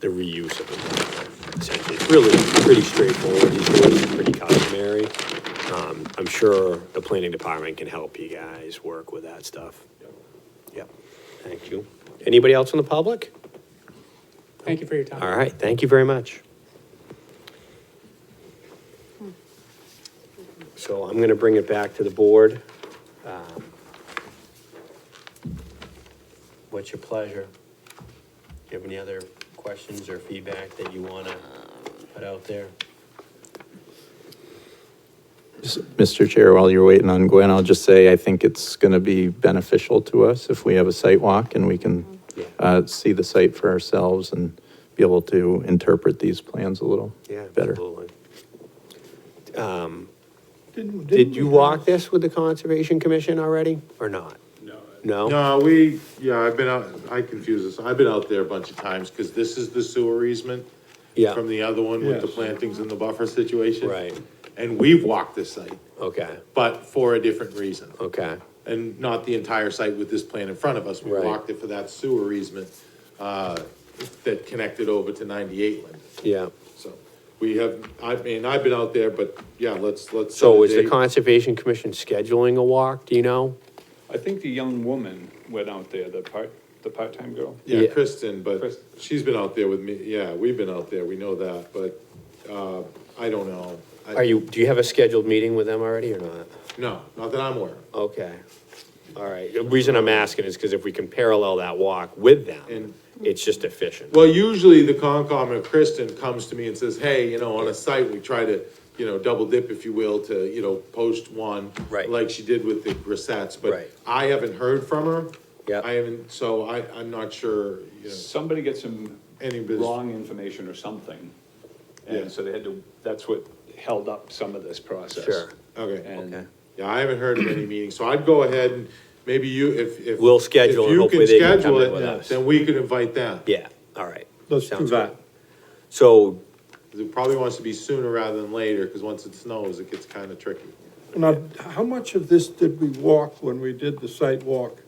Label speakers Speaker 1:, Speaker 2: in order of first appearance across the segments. Speaker 1: the reuse of it. So It's really pretty straightforward, these doors are pretty customary. Um, I'm sure the planning department can help you guys work with that stuff. Yep, thank you. Anybody else in the public?
Speaker 2: Thank you for your time.
Speaker 1: All right, thank you very much. So I'm gonna bring it back to the board. Um, What's your pleasure? Do you have any other questions or feedback that you wanna put out there?
Speaker 3: Mr. Chair, while you're waiting on Gwen, I'll just say, I think it's going to be beneficial to us if we have a site walk and we can
Speaker 1: Yeah.
Speaker 3: uh, see the site for ourselves and be able to interpret these plans a little
Speaker 1: Yeah,
Speaker 3: better.
Speaker 1: absolutely. Um, Did you walk this with the Conservation Commission already, or not?
Speaker 4: No.
Speaker 1: No?
Speaker 5: No, we, yeah, I've been out, I confuse this, I've been out there a bunch of times, because this is the sewer easement
Speaker 1: Yeah,
Speaker 5: from the other one with the
Speaker 4: Yes.
Speaker 5: plantings and the buffer situation.
Speaker 1: Right.
Speaker 5: And we've walked this site,
Speaker 1: okay,
Speaker 5: but for a different reason,
Speaker 1: okay,
Speaker 5: and not the entire site with this plan in front of us. We
Speaker 1: Right.
Speaker 5: walked it for that sewer easement, uh, that connected over to ninety-eight Linden.
Speaker 1: yeah.
Speaker 5: So, we have, I mean, I've been out there, but yeah, let's, let's. set
Speaker 1: So
Speaker 5: a
Speaker 1: is the
Speaker 5: date.
Speaker 1: Conservation Commission scheduling a walk, do you know?
Speaker 4: I think the young woman went out there, the part, the part-time girl.
Speaker 1: Yeah.
Speaker 5: Yeah, Kristen, but
Speaker 4: Kristen.
Speaker 5: she's been out there with me, yeah, we've been out there, we know that, but, uh, I don't know. I-
Speaker 1: Are you, do you have a scheduled meeting with them already or not?
Speaker 5: No, not that I'm aware of,
Speaker 1: Okay, all right. The reason I'm asking is because if we can parallel that walk with them,
Speaker 5: And-
Speaker 1: it's just efficient.
Speaker 5: well, usually the Concom or Kristen comes to me and says, hey, you know, on a site, we try to, you know, double dip, if you will, to, you know, post one.
Speaker 1: Right.
Speaker 5: Like she did with the Grissettes,
Speaker 1: Right.
Speaker 5: but I haven't heard from her.
Speaker 1: Yep.
Speaker 5: I haven't, so I, I'm not sure, you know,
Speaker 4: Somebody got some
Speaker 5: any business.
Speaker 4: wrong information or something.
Speaker 5: Yeah.
Speaker 4: And so they had to, that's what held up some of this process.
Speaker 1: Sure.
Speaker 5: Okay.
Speaker 4: And
Speaker 5: Yeah, I haven't heard of any meetings, so I'd go ahead and maybe you, if, if.
Speaker 1: We'll schedule
Speaker 5: if
Speaker 1: and
Speaker 5: you
Speaker 1: hopefully they can come
Speaker 5: schedule
Speaker 1: in
Speaker 5: it,
Speaker 1: with us.
Speaker 5: Then we could invite them.
Speaker 1: Yeah, all right.
Speaker 6: Let's do
Speaker 1: Sounds
Speaker 6: that.
Speaker 1: good. So,
Speaker 5: 'Cause It probably wants to be sooner rather than later, because once it snows, it gets kind of tricky.
Speaker 6: Now, how much of this did we walk when we did the site walk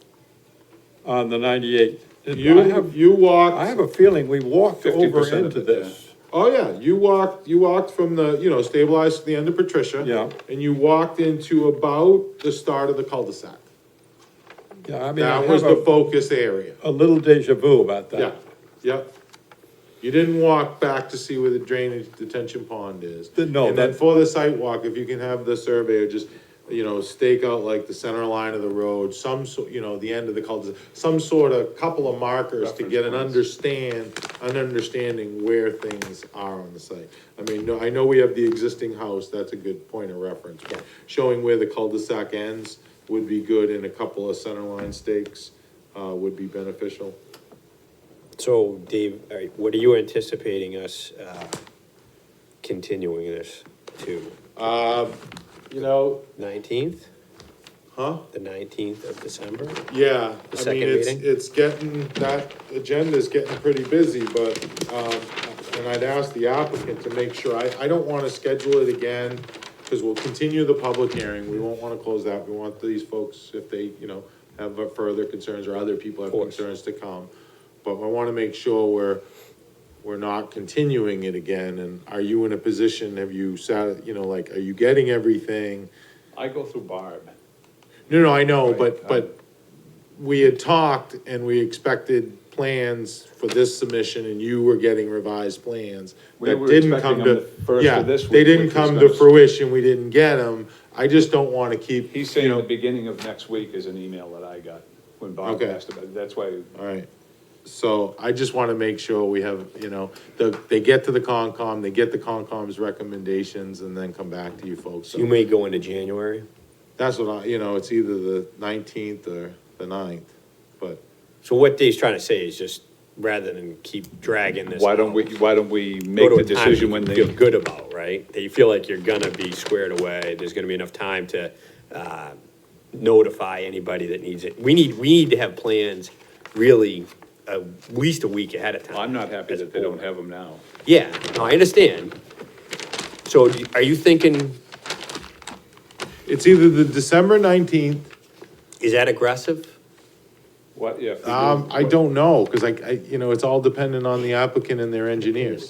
Speaker 6: on the ninety-eight? I
Speaker 5: You,
Speaker 6: have,
Speaker 5: you walked.
Speaker 6: I have a feeling we walked
Speaker 4: 50%
Speaker 6: over
Speaker 4: of
Speaker 6: into
Speaker 4: it, yeah.
Speaker 6: this.
Speaker 5: Oh, yeah, you walked, you walked from the, you know, stabilized to the end of Patricia.
Speaker 6: Yeah.
Speaker 5: And you walked into about the start of the cul-de-sac.
Speaker 6: Yeah, I mean, I
Speaker 5: That was the
Speaker 6: have a,
Speaker 5: focus area.
Speaker 6: a little deja vu about
Speaker 5: Yeah,
Speaker 6: that.
Speaker 5: yep. You didn't walk back to see where the drainage detention pond is.
Speaker 6: Didn't know
Speaker 5: And then
Speaker 6: that-
Speaker 5: for the sidewalk, if you can have the surveyor just, you know, stake out like the center line of the road, some so, you know, the end of the cul-de-sac, some sort of couple of markers to get an understand, an understanding where things are on the site. I mean, no, I know we have the existing house, that's a good point of reference, but showing where the cul-de-sac ends would be good and a couple of center line stakes, uh, would be beneficial.
Speaker 1: so Dave, all right, what are you anticipating us, uh, continuing this to?
Speaker 5: You know,
Speaker 1: Nineteenth,
Speaker 5: Huh?
Speaker 1: the nineteenth of December?
Speaker 5: Yeah,
Speaker 1: The
Speaker 5: I
Speaker 1: second
Speaker 5: mean, it's,
Speaker 1: meeting?
Speaker 5: it's getting, that agenda's getting pretty busy, but, um, and I'd ask the applicant to make sure, I, I don't wanna schedule it again, cause we'll continue the public hearing, we won't wanna close that, we want these folks, if they, you know, have uh, further concerns or other people have
Speaker 1: course.
Speaker 5: concerns to come. But I wanna make sure we're, we're not continuing it again, and are you in a position, have you sat, you know, like, are you getting everything?
Speaker 4: I go through Barb.
Speaker 5: No, no, I know,
Speaker 4: Right,
Speaker 5: but,
Speaker 4: um,
Speaker 5: but we had talked and we expected plans for this submission and you were getting revised plans.
Speaker 4: We
Speaker 5: that
Speaker 4: were
Speaker 5: didn't come
Speaker 4: expecting
Speaker 5: to.
Speaker 4: them the first of
Speaker 5: yeah,
Speaker 4: this
Speaker 5: They
Speaker 4: week,
Speaker 5: didn't
Speaker 4: which
Speaker 5: come
Speaker 4: was
Speaker 5: to
Speaker 4: gonna-
Speaker 5: fruition, we didn't get them. I just don't wanna keep,
Speaker 4: He's saying the beginning of next week is an email that I got when Barb
Speaker 5: Okay.
Speaker 4: asked about it. That's why
Speaker 5: alright. So I just wanna make sure we have, you know, the, they get to the Concom, they get the Concom's recommendations and then come back to you folks.
Speaker 1: You
Speaker 5: So
Speaker 1: may go into January.
Speaker 5: that's what I, you know, it's either the nineteenth or the ninth, but
Speaker 1: So what Dave's trying to say is just, rather than keep dragging this.
Speaker 4: Why don't
Speaker 1: out,
Speaker 4: we, why don't we
Speaker 1: go
Speaker 4: make
Speaker 1: to
Speaker 4: the
Speaker 1: a time
Speaker 4: decision
Speaker 1: you
Speaker 4: when
Speaker 1: Feel
Speaker 4: they,
Speaker 1: good about, right? That you feel like you're gonna be squared away, there's gonna be enough time to, uh, notify anybody that needs it. We need, we need to have plans really at least a week ahead of time.
Speaker 4: I'm not happy
Speaker 1: as a
Speaker 4: that they don't
Speaker 1: board.
Speaker 4: have them now.
Speaker 1: Yeah, no, I understand. So do- are you thinking,
Speaker 5: it's either the December nineteenth
Speaker 1: is that aggressive?
Speaker 4: What, yeah. if we do-
Speaker 5: Um, I don't know, cause I, I, you know, it's all dependent on the applicant and their engineers.